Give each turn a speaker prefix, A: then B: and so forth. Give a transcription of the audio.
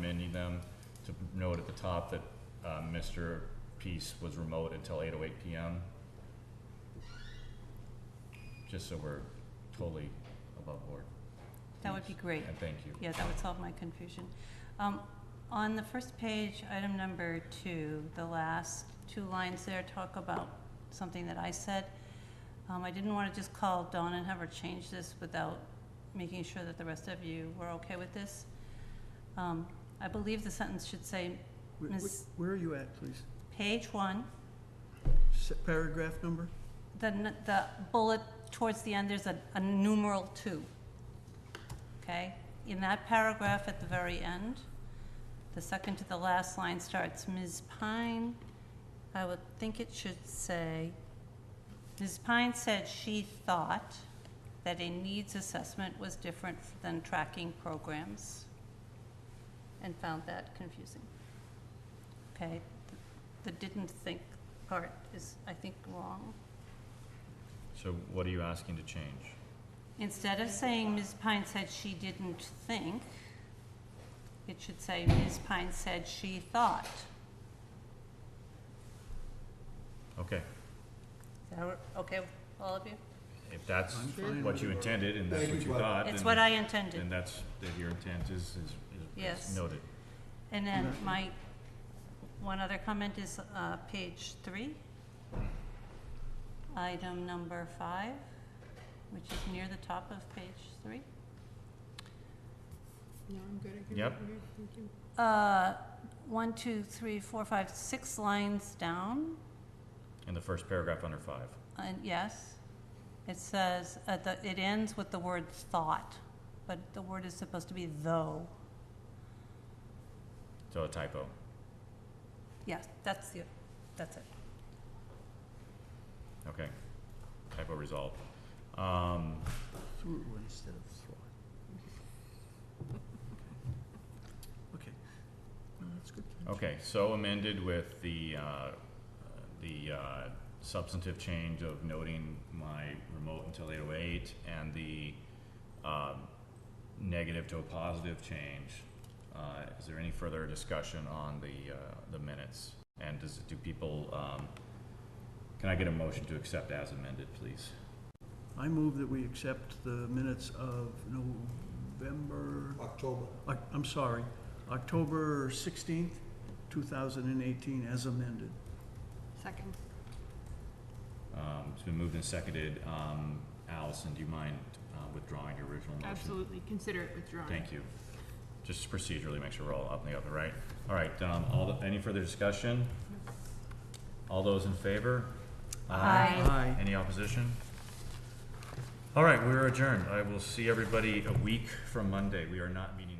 A: sending them to note at the top that uh, Mr. Peace was remote until 8:08 PM. Just so we're totally above board.
B: That would be great.
A: And thank you.
B: Yeah, that would solve my confusion. Um, On the first page, item number two, the last two lines there talk about something that I said. Um, I didn't want to just call Dawn and have her change this without making sure that the rest of you were okay with this. Um, I believe the sentence should say,
C: Wh- wh-
B: Miss-
C: Where are you at, please?
B: page one,
C: S- Paragraph number?
B: the, n- the bullet towards the end, there's a, a numeral two. Okay? In that paragraph at the very end, the second to the last line starts, Ms. Pine, I would think it should say, Ms. Pine said she thought that a needs assessment was different than tracking programs and found that confusing. Okay? The didn't think part is, I think, wrong.
A: So what are you asking to change?
B: Instead of saying Ms. Pine said she didn't think, it should say Ms. Pine said she thought.
A: Okay,
B: Is that okay with all of you?
A: if that's
C: I'm fine
A: what
C: with
A: you
C: it.
A: intended and that's
D: Thank
A: what
D: you,
A: you
D: Bob.
A: thought,
B: It's
A: then-
B: what I
A: then
B: intended.
A: that's, that your intent is, is- is,
B: Yes.
A: is noted.
B: And then
C: Yeah.
B: my, one other comment is uh, page three, item number five, which is near the top of page three.
E: No, I'm good. I hear
A: Yep.
E: what you're thinking.
B: Uh, One, two, three, four, five, six lines down.
A: In the first paragraph under five.
B: And yes, it says, at the, it ends with the word thought, but the word is supposed to be though.
A: So a typo.
B: Yes, that's the, that's it.
A: Okay. Typo resolved. Um,
C: Through instead of through. Okay. No, that's good.
A: okay, so amended with the, uh, the uh, substantive change of noting my remote until eight oh eight and the, um, negative to a positive change. Uh, is there any further discussion on the, uh, the minutes? And does, do people, um, can I get a motion to accept as amended, please?
C: I move that we accept the minutes of November,
D: October.
C: Oc- I'm sorry, October 16th, 2018, as amended.
E: Second.
A: Um, It's been moved and seconded. Um, Allison, do you mind uh, withdrawing your original motion?
E: Absolutely. Consider it withdrawn.
A: Thank you. Just procedurally, make sure we're all up in the oven, right? All right, um, all, the- any further discussion? All those in favor?
B: Aye.
C: Aye.
A: Any opposition? All right, we're adjourned. I will see everybody a week from Monday. We are not meeting